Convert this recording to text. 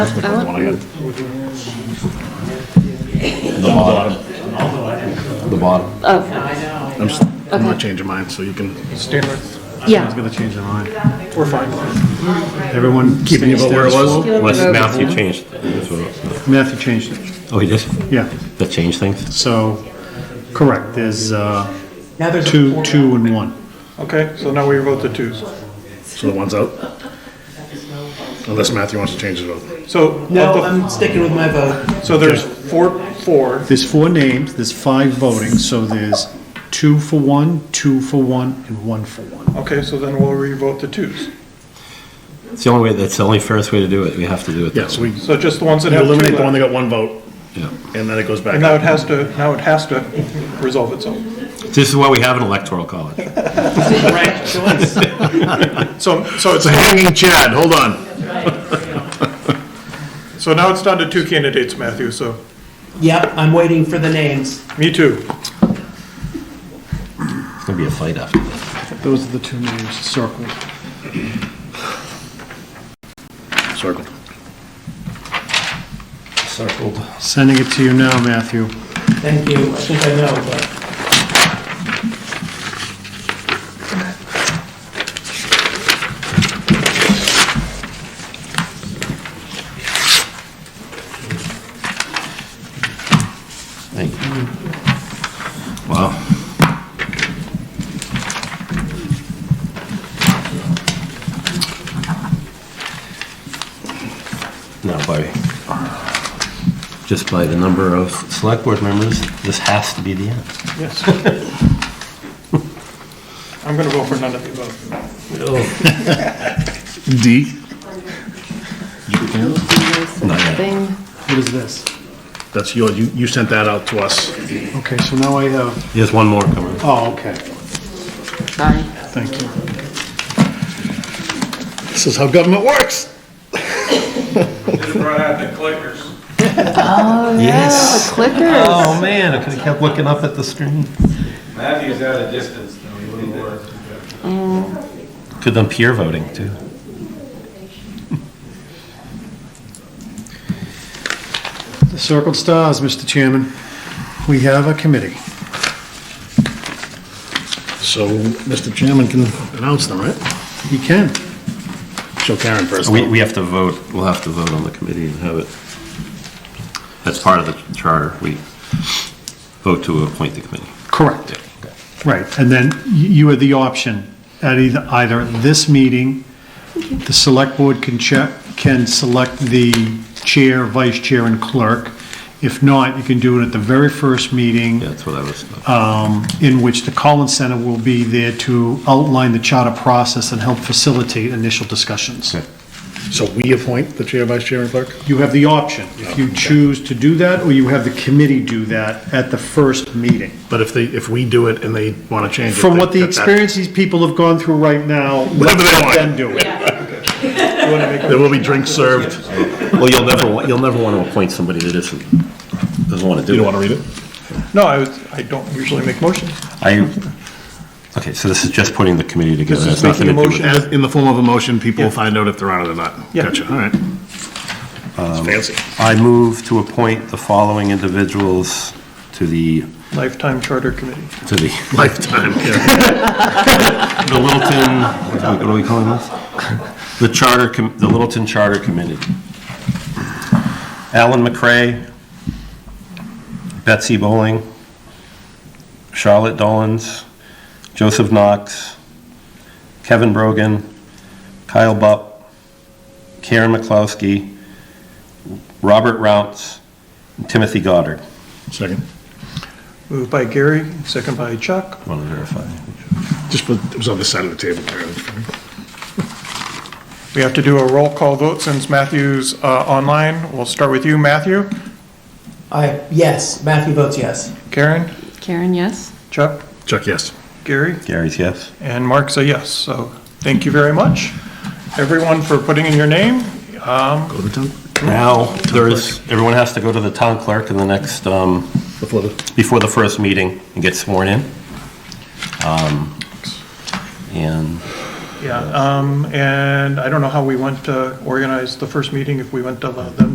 The one I got. The bottom. The bottom. Oh, I'm, s- I'm not changing mine, so you can. Standards. yeah. gonna change their mind. We're fine. Everyone. Keeping it about where it was? You'll Unless remove Matthew it. changed. it. Matthew changed it. Oh, he did? Yeah, That changed things? so, correct, there's, uh, Now there's a two, four. two and one. Okay, so now we vote the twos. So the one's out. Unless Matthew wants to change his vote. So, of No, the- I'm sticking with my vote. so there's four, four, There's four names, there's five voting, so there's two for one, two for one, and one for one. okay, so then we'll re-vote the twos. It's the only way, that's the only fairest way to do it. We have to do it. that Yeah, so way. we So just the ones that you have two eliminate the one that left. got one vote, Yeah. and then it goes back. And now up. it has to, now it has to resolve itself. This is why we have an electoral college. Right choice. So, so it's, It's a hanging Chad, hold on. so now it's down to two candidates, Matthew, so, Yep, I'm waiting for the names. me too. It's gonna be a fight after this. Those are the two names circled. Circle. Circled. Sending it to you now, Matthew. Thank you. I think I know, but Thank you. Wow. Now, by, just by the number of select board members, this has to be the end. Yes. I'm gonna vote for none of the above. D. Not yet. Thing. What is this? That's yours. You, you sent that out to us. Okay, so now I have, There's one more coming. oh, okay, Sorry. thank you. This is how government works. Yes. Clicker. Oh, man, I could have kept looking up at the screen. Matthew's out of distance, though, he wouldn't work. Could have done peer voting, too. The circled stars, Mr. Chairman. We have a committee. So Mr. Chairman can announce them, right? You can. Show Karen first. We, though. we have to vote, we'll have to vote on the committee and have it. That's part of the charter, we vote to appoint the committee. Correct. Right, and then y- you have the option at either, either this meeting, the select board can check, can select the chair, vice chair, and clerk. If not, you can do it at the very first meeting, Yeah, that's what I was, in which the Collins Center will be there to outline the charter process and help facilitate initial discussions. Okay. So we appoint the chair, vice chair, and clerk? You have the option, if you choose to do that, or you have the committee do that at the first meeting. But if they, if we do it and they want to change it. From they- what the that- that- experience these people have gone through right now, let Whatever they want. them do it. There will be drinks served. well, you'll never, wa- you'll never want to appoint somebody that isn't, doesn't want to You do don't want it. to read it? No, I was, I don't usually make motions. I, okay, so this is just putting the committee together. This is It's nothing to making a do with motion. As, in the form of a motion, people will find out if they're on it or not. Yeah. Gotcha, all right. It's fancy. I move to appoint the following individuals to the, Lifetime Charter Committee. to the Lifetime, yeah. the Littleton, what are we calling this? The Charter, Com- the Littleton Charter Committee. Alan McCray, Betsy Bowling, Charlotte Dolans, Joseph Knox, Kevin Brogan, Kyle Bupp, Karen McCloskey, Robert Rounce, and Timothy Goddard. Second. Moved by Gary, second by Chuck. Want to verify? Just put, it was on this side of the table. We have to do a roll call vote since Matthew's uh, online. We'll start with you, Matthew. I, yes, Matthew votes yes. Karen, Karen, yes? Chuck, Chuck, yes. Gary, Gary's yes. and Mark's a yes. So thank you very much, everyone, for putting in your name. Go to the tongue. Now, there is, everyone has to go to the town clerk in the next, um, Before the, before the first meeting and get sworn in. Um, And yeah. Um, And I don't know how we went to organize the first meeting, if we went to the the